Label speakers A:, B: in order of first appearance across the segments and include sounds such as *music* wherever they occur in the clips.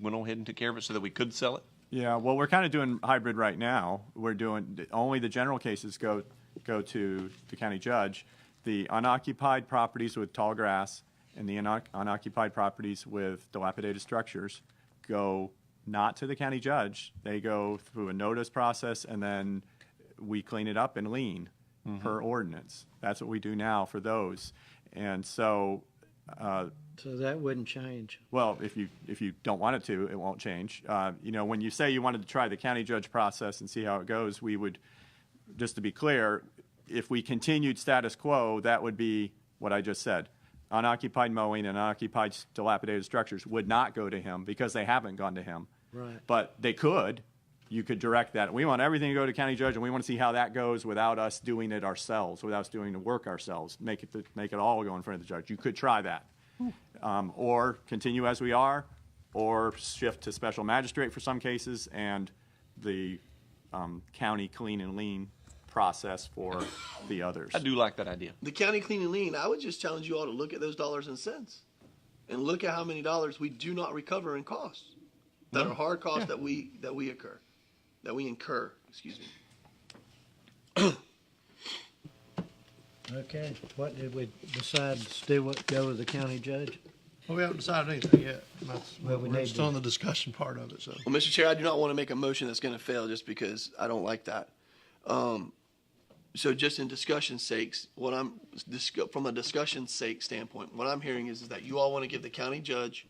A: went on ahead and took care of it so that we could sell it?
B: Yeah, well, we're kind of doing hybrid right now. We're doing, only the general cases go, go to the county judge. The unoccupied properties with tall grass and the unoc- unoccupied properties with dilapidated structures go not to the county judge. They go through a notice process and then we clean it up and lean per ordinance. That's what we do now for those. And so uh,
C: So that wouldn't change.
B: well, if you, if you don't want it to, it won't change. Uh, You know, when you say you wanted to try the county judge process and see how it goes, we would, just to be clear, if we continued status quo, that would be what I just said. Unoccupied mowing and unoccupied s- dilapidated structures would not go to him because they haven't gone to him.
C: Right.
B: But they could. You could direct that. We want everything to go to county judge, and we want to see how that goes without us doing it ourselves, without us doing the work ourselves. Make it, make it all go in front of the judge. You could try that. Um, or continue as we are, or shift to special magistrate for some cases, and the um, county clean and lean process for the others.
A: I do like that idea.
D: The county clean and lean, I would just challenge you all to look at those dollars and cents and look at how many dollars we do not recover in costs that are hard costs that we that we occur that we incur, excuse me.
C: Okay, what did we decide to do, what, go with the county judge?
E: Well, we haven't decided anything yet. That's,
C: Well, we
E: we're
C: need
E: still
C: to-
E: in the discussion part of it, so.
D: Well, Mr. Chair, I do not want to make a motion that's going to fail just because I don't like that. Um, so just in discussion sakes, what I'm, discu- from a discussion sake standpoint, what I'm hearing is, is that you all want to give the county judge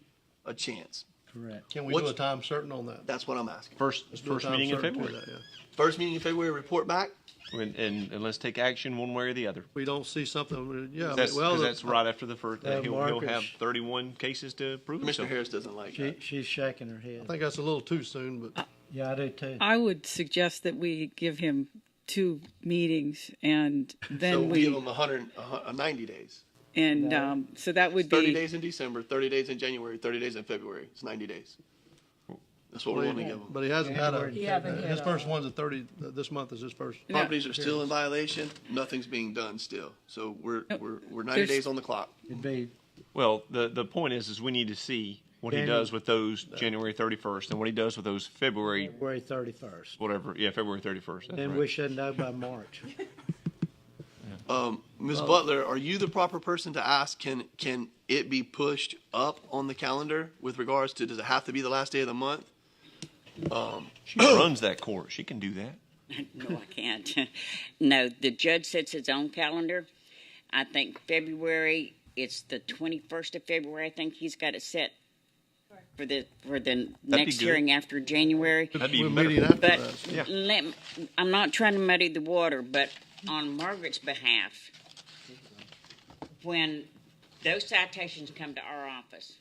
D: a chance.
C: Correct.
E: Can we
D: What's-
E: do a time certain on that?
D: That's what I'm asking.
A: First,
E: Let's do a
A: first
E: time
A: meeting in
E: certain to
A: February.
E: that, yeah.
D: First meeting in February, report back.
A: And, and, and let's take action one way or the other.
E: We don't see something, we- yeah. I mean,
A: That's,
E: well,
A: 'cause that's right after the first,
C: Uh,
A: he'll, he'll
C: Marcus-
A: have thirty-one cases to prove
D: Commissioner
A: himself.
D: Harris doesn't like
C: She,
D: that.
C: she's shaking her
E: I
C: head.
E: think that's a little too soon, but
C: Yeah, I do too.
F: I would suggest that we give him two meetings and
D: *laughs* So
F: then
D: we
F: we,
D: give them a hundred, a hu- a ninety days.
F: and um, so that would
D: Thirty
F: be,
D: days in December, thirty days in January, thirty days in February. It's ninety days. That's what we're going to give them.
E: but he hasn't had
C: He
E: a,
G: haven't
E: his
G: had
E: first one's a thirty, th- this month is his first.
F: No.
D: Properties are still in violation. Nothing's being done still. So we're, we're, we're ninety
F: There's-
D: days on the clock.
C: It'd be,
A: Well, the, the point is, is we need to see what he
C: Daniel-
A: does with those January thirty-first and what he does with those February,
C: February thirty-first.
A: whatever, yeah, February thirty-first.
C: Then we should know by March.
D: Um, Ms. Butler, are you the proper person to ask, can, can it be pushed up on the calendar with regards to, does it have to be the last day of the month?
A: She runs that court. She can do that.
H: No, I can't. *laughs* No, the judge sets his own calendar. I think February, it's the twenty-first of February, I think he's got it set for the, for the next
A: good.
H: hearing after January.
A: That'd be
E: We're
A: better.
E: meeting after
H: But
E: that. so-
H: let, m- I'm not trying to muddy the water, but on Margaret's behalf, when those citations come to our office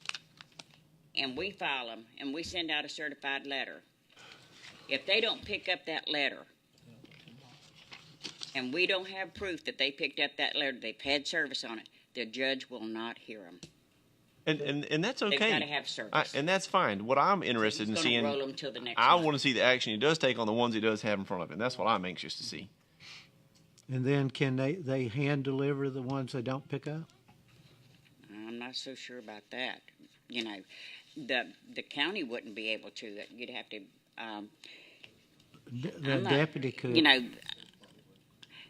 H: and we file them and we send out a certified letter, if they don't pick up that letter and we don't have proof that they picked up that letter, they've had service on it, the judge will not hear them.
A: And, and, and that's okay.
H: gotta have service.
A: I- And that's fine. What I'm interested
H: He's
A: in
H: gonna
A: seeing,
H: roll 'em till the next
A: I
H: month.
A: want to see the action he does take on the ones he does have in front of him. That's what I'm anxious to see.
C: And then can they, they hand deliver the ones they don't pick up?
H: I'm not so sure about that. You know, the, the county wouldn't be able to, you'd have to, um,
C: The- The
H: I'm not-
C: deputy could.
H: you know,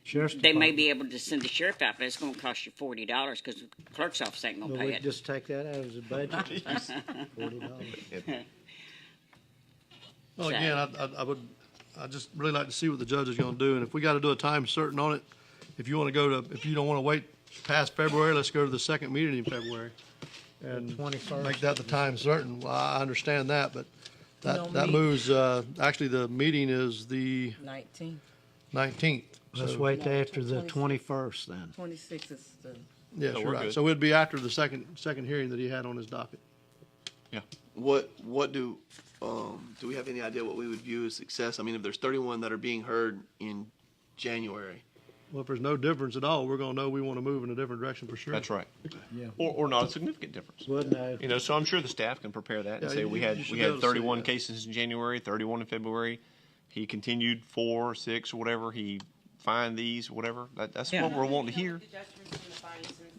C: Sheriff's
H: they may
C: Department.
H: be able to send the sheriff out, but it's gonna cost you forty dollars, cause the clerk's office ain't gonna
C: Well,
H: pay
C: we
H: it.
C: just take that out as a
H: *laughs*
C: budget. Forty dollars.
E: Well, again, I, I, I would, I just really like to see what the judge is gonna do, and if we gotta do a time certain on it, if you wanna go to, if you don't wanna wait past February, let's go to the second meeting in February. And
C: 21st.
E: make that the time certain. Well, I understand that, but that,
G: Don't
E: that
G: meet.
E: moves, uh, actually, the meeting is the
G: Nineteen.
E: nineteenth.
C: Let's wait till after the
G: 26.
C: twenty-first then.
G: Twenty-six is the,
E: Yes,
A: So
E: you're
A: we're
E: right.
A: good.
E: So it'd be after the second, second hearing that he had on his docket.
D: What, what do, um, do we have any idea what we would view as success? I mean, if there's thirty-one that are being heard in January,
E: Well, if there's no difference at all, we're gonna know we wanna move in a different direction for sure.
A: That's right.
C: Yeah.
A: Or, or not a significant difference.
C: We'll know.
A: You know, so I'm sure the staff can prepare that and
E: Yeah,
A: say
E: you-
A: we
E: you
A: had
E: should
A: we
E: be able
A: had
E: to say
A: 31
E: that.
A: cases in January, 31 in February. He continued four, six, or whatever. He fined these, whatever. That, that's
F: Yeah.
A: what we're wanting to hear.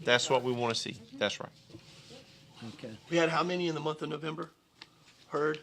A: That's what we want to see. That's right.
C: Okay.
D: we had how many in the month of November? heard.